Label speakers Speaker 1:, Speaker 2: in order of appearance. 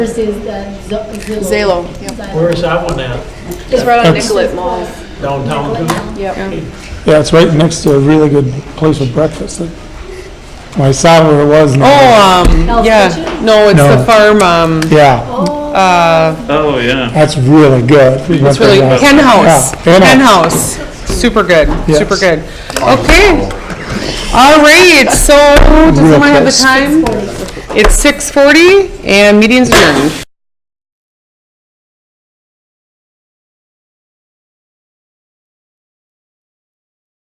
Speaker 1: This is the Zillow.
Speaker 2: Zalo, yep.
Speaker 1: Zillow.
Speaker 3: Where is that one at?
Speaker 2: It's right on
Speaker 4: That's-
Speaker 2: Nicollet Mall.
Speaker 3: Downtown? too?
Speaker 2: Yep.
Speaker 4: Yeah, it's right next to a really good place for breakfast. Well, I saw where it was. and I-
Speaker 5: Oh, um,
Speaker 1: Hell's
Speaker 5: yeah,
Speaker 1: Kitchen?
Speaker 5: no, it's
Speaker 4: No.
Speaker 5: the farm, um,
Speaker 4: Yeah,
Speaker 5: uh,
Speaker 6: Oh, yeah.
Speaker 4: that's really good. We went
Speaker 5: it's really,
Speaker 4: there last-
Speaker 5: hen house,
Speaker 4: Yeah, hen
Speaker 5: hen
Speaker 4: house.
Speaker 5: house. Super good,
Speaker 4: Yes.
Speaker 5: super good. Okay. All right, so does
Speaker 4: Real
Speaker 5: anyone have the
Speaker 4: close.
Speaker 5: time? It's six forty and meeting's adjourned.